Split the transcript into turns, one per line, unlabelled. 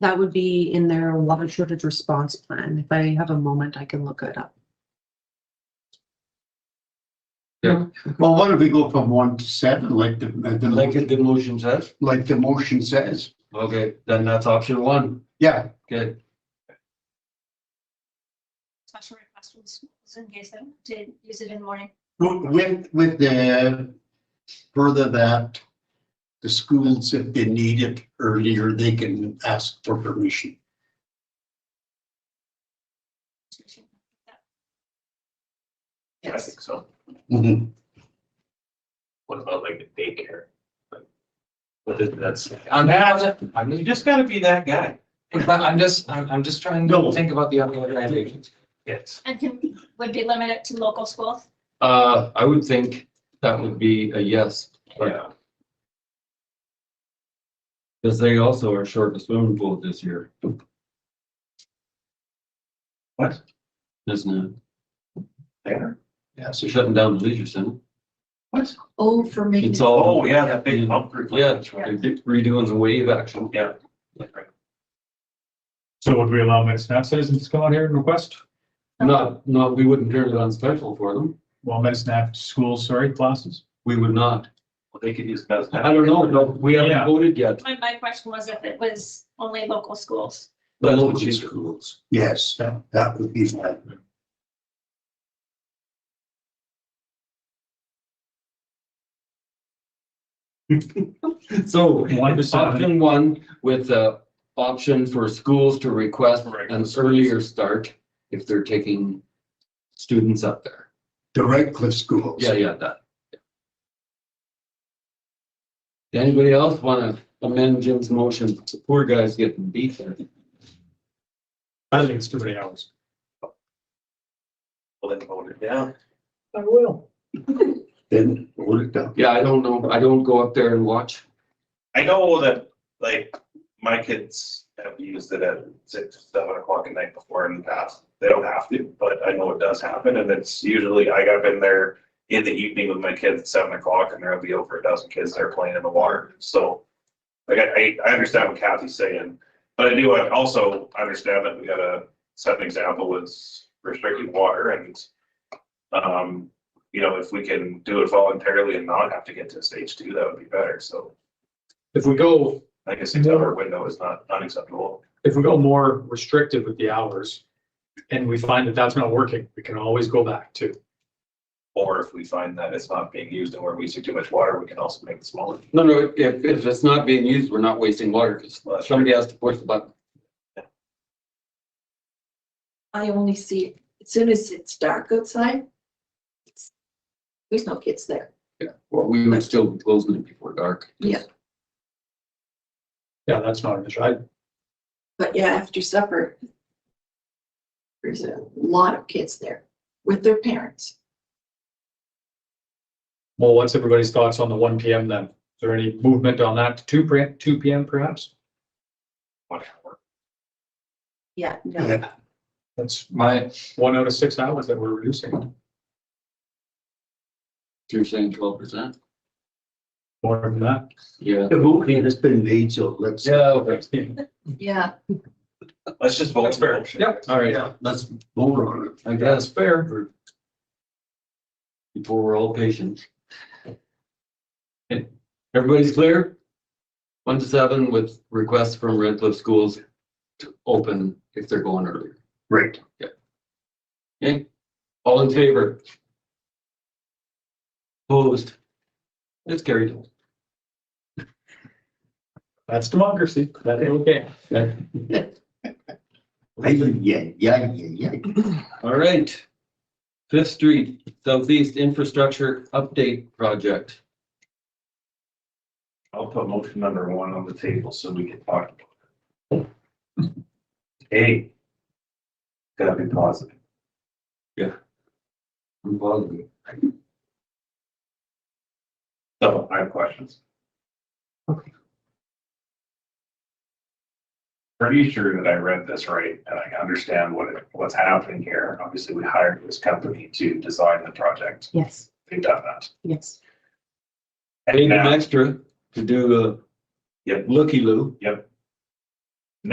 That would be in their water shortage response plan. If I have a moment, I can look it up.
Well, why don't we go from one to seven, like the, uh, the-
Like the motion says,
like the motion says?
okay, then that's option one,
Yeah,
good.
special request from the schools in case they did use it in the morning.
with, with the, further that the schools, if they need it earlier, they can ask for permission.
I think so.
Mm-hmm.
Mhm.
What about like a daycare? Like, What is that's, I'm not, I'm
You
just,
just gotta be that guy. But I'm just, I'm, I'm just trying
No.
to think about the other organizations.
yes.
And can, would be limited to local schools?
Uh, I would think that would be a yes,
Yeah,
because they also are short of swimming pool this year.
What?
Isn't
there.
Yeah,
it?
so
Shutting down the leisure center.
Oh, for me.
It's all.
Oh, yeah, that big pump.
Yeah, it's redoing the wave action.
Yeah.
So would we allow Medicine citizens to come out here and request?
Not, not, we wouldn't turn it on special for them.
Well, Medicine schools, sorry, classes?
We would not.
Well, they could use best.
I don't know, no, we haven't
Yeah.
voted yet.
My, my question was if it was only local schools.
That's
Local
what she's.
schools. Yes, that that would be fine.
So,
One to seven.
option one with the option for schools to request
Right.
an earlier start if they're taking students up there.
The Redcliffe schools.
Yeah, yeah, that. Anybody else want to amend Jim's motion? The Poor guy's getting beat there.
I think it's too many hours.
Well, then vote it down.
I will.
Then hold it down.
Yeah, I don't know. I don't go up there and watch.
I know that, like, my kids have used it at six, seven o'clock at night before in the past. They don't have to, but I know it does happen and it's usually, I got in there in the evening with my kids at seven o'clock and there'll be over a dozen kids there playing in the water, so. Like, I, I understand what Kathy's saying, but I do also understand that we gotta set an example with restricting water and. Um, you know, if we can do it voluntarily and not have to get to stage two, that would be better, so.
If we go,
I guess six hour window is not unacceptable.
if we go more restrictive with the hours and we find that that's not working, we can always go back to.
Or if we find that it's not being used and we're wasting too much water, we can also make it smaller.
No, no, if, if it's not being used, we're not wasting water because somebody has to push the button.
I only see it as soon as it's dark outside. it's- There's no kids there.
Yeah, well, we would still be closing it before dark.
Yeah.
Yeah, that's not an issue. I,
But yeah, after supper, there's a lot of kids there with their parents.
well, what's everybody's thoughts on the one P M then? Is there any movement on that to two, pre- two P M perhaps?
One hour.
Yeah, no,
Yeah,
That's
My,
one out of six hours that we're reducing.
you're saying twelve percent?
More than that.
Yeah.
The movement has been made, so let's.
Yeah.
yeah,
Let's just vote.
That's fair. Yep.
All right,
Yeah, let's vote on it.
I guess fair. Before we're all patient. Okay, Everybody's clear? One to seven with requests from Red Cliff Schools to open if they're going earlier.
Right.
Okay, all in favor? Opposed? It's carried.
That's democracy. That's okay.
Yeah, yeah, yeah, yeah.
All right. Fifth Street Southeast Infrastructure Update Project.
I'll put motion number one on the table so we can talk. about it. Hey. Gotta be positive.
I'm positive.
So I have questions. Pretty sure that I read this right and I understand what, it- what's happening here. Obviously, we hired this company to design the project.
Yes,
They've done that.
yes.
Paid
And
them
now-
extra to do the
Yep.
looky-loo.
Yep.